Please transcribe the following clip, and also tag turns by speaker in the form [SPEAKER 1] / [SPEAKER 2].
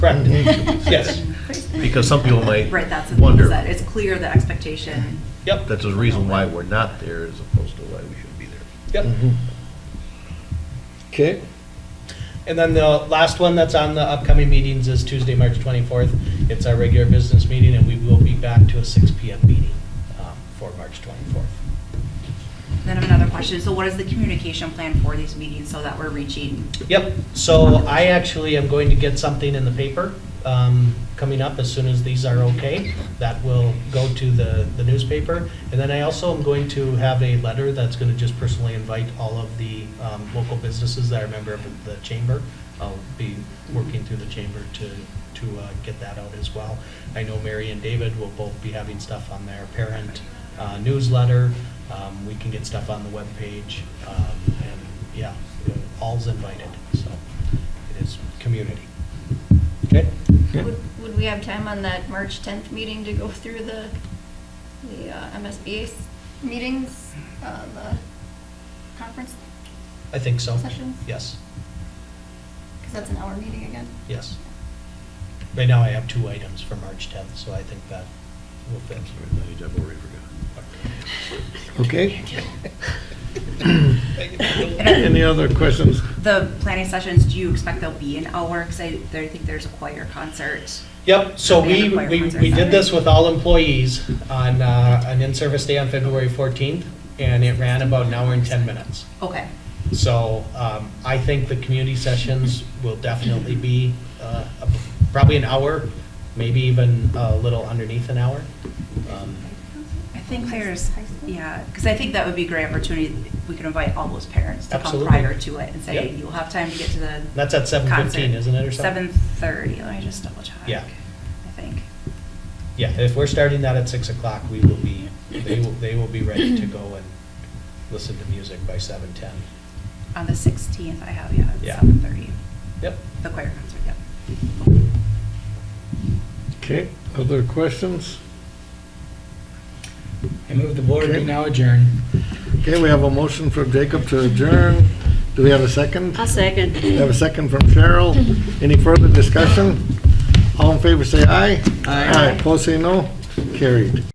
[SPEAKER 1] Correct.
[SPEAKER 2] Mm-hmm.
[SPEAKER 1] Yes.
[SPEAKER 3] Because some people might
[SPEAKER 4] Right, that's the thing,
[SPEAKER 3] wonder.
[SPEAKER 4] is that it's clear the expectation.
[SPEAKER 1] Yep.
[SPEAKER 3] That's the reason why we're not there as opposed to why we should be there.
[SPEAKER 1] Yep.
[SPEAKER 2] Mm-hmm. Okay,
[SPEAKER 1] And then the last one that's on the upcoming meetings is Tuesday, March 24th. It's our regular business meeting, and we will be back to a 6 PM meeting um, for March 24th.
[SPEAKER 4] Then I have another question, so what is the communication plan for these meetings so that we're reaching?
[SPEAKER 1] Yep, so I actually am going to get something in the paper um, coming up as soon as these are okay. That will go to the the newspaper. And then I also am going to have a letter that's going to just personally invite all of the um, local businesses that are a member of the chamber. I'll be working through the chamber to, to uh, get that out as well. I know Mary and David will both be having stuff on their parent uh, newsletter. Um, We can get stuff on the webpage, um, and yeah, all's invited, so it is community.
[SPEAKER 2] okay.
[SPEAKER 5] Would would we have time on that March 10th meeting to go through the, the uh, MSBA s- meetings, uh, the conference?
[SPEAKER 1] I think so.
[SPEAKER 5] Sessions?
[SPEAKER 1] Yes,
[SPEAKER 5] Because that's an hour meeting again.
[SPEAKER 1] yes. Right now I have two items for March 10th, so I think that will fit.
[SPEAKER 3] I've already forgotten.
[SPEAKER 2] Okay. Any other questions?
[SPEAKER 4] The planning sessions, do you expect they'll be an hour? Because I, there- I think there's a choir concert.
[SPEAKER 1] Yep, so we,
[SPEAKER 4] Band
[SPEAKER 1] we,
[SPEAKER 4] requirements are
[SPEAKER 1] we did
[SPEAKER 4] separate.
[SPEAKER 1] this with all employees on uh, an in-service day on February 14th, and it ran about an hour and 10 minutes.
[SPEAKER 4] Okay,
[SPEAKER 1] So um, I think the community sessions will definitely be uh, probably an hour, maybe even a little underneath an hour. Um,
[SPEAKER 4] I think there's,
[SPEAKER 5] High school?
[SPEAKER 4] yeah, because I think that would be a great opportunity, we could invite all those parents to come
[SPEAKER 1] Absolutely.
[SPEAKER 4] prior to it and say,
[SPEAKER 1] Yep.
[SPEAKER 4] you'll have time to get to the
[SPEAKER 1] That's at 7:15,
[SPEAKER 4] concert.
[SPEAKER 1] isn't it, or something?
[SPEAKER 4] 7:30, let me just double check.
[SPEAKER 1] Yeah.
[SPEAKER 4] I think.
[SPEAKER 1] Yeah, if we're starting that at 6 o'clock, we will be, they will, they will be ready to go and listen to music by 7:10.
[SPEAKER 4] On the 16th, I have, yeah,
[SPEAKER 1] Yeah.
[SPEAKER 4] at 7:30,
[SPEAKER 1] Yep.
[SPEAKER 4] the choir concert, yep.
[SPEAKER 2] Okay, other questions?
[SPEAKER 6] I move the board
[SPEAKER 2] Okay.
[SPEAKER 6] be now adjourned.
[SPEAKER 2] Okay, we have a motion from Jacob to adjourn. Do we have a second?
[SPEAKER 7] I'll second.
[SPEAKER 2] We have a second from Cheryl. Any further discussion? All in favor, say aye. Aye. Opposed, say no. Carried.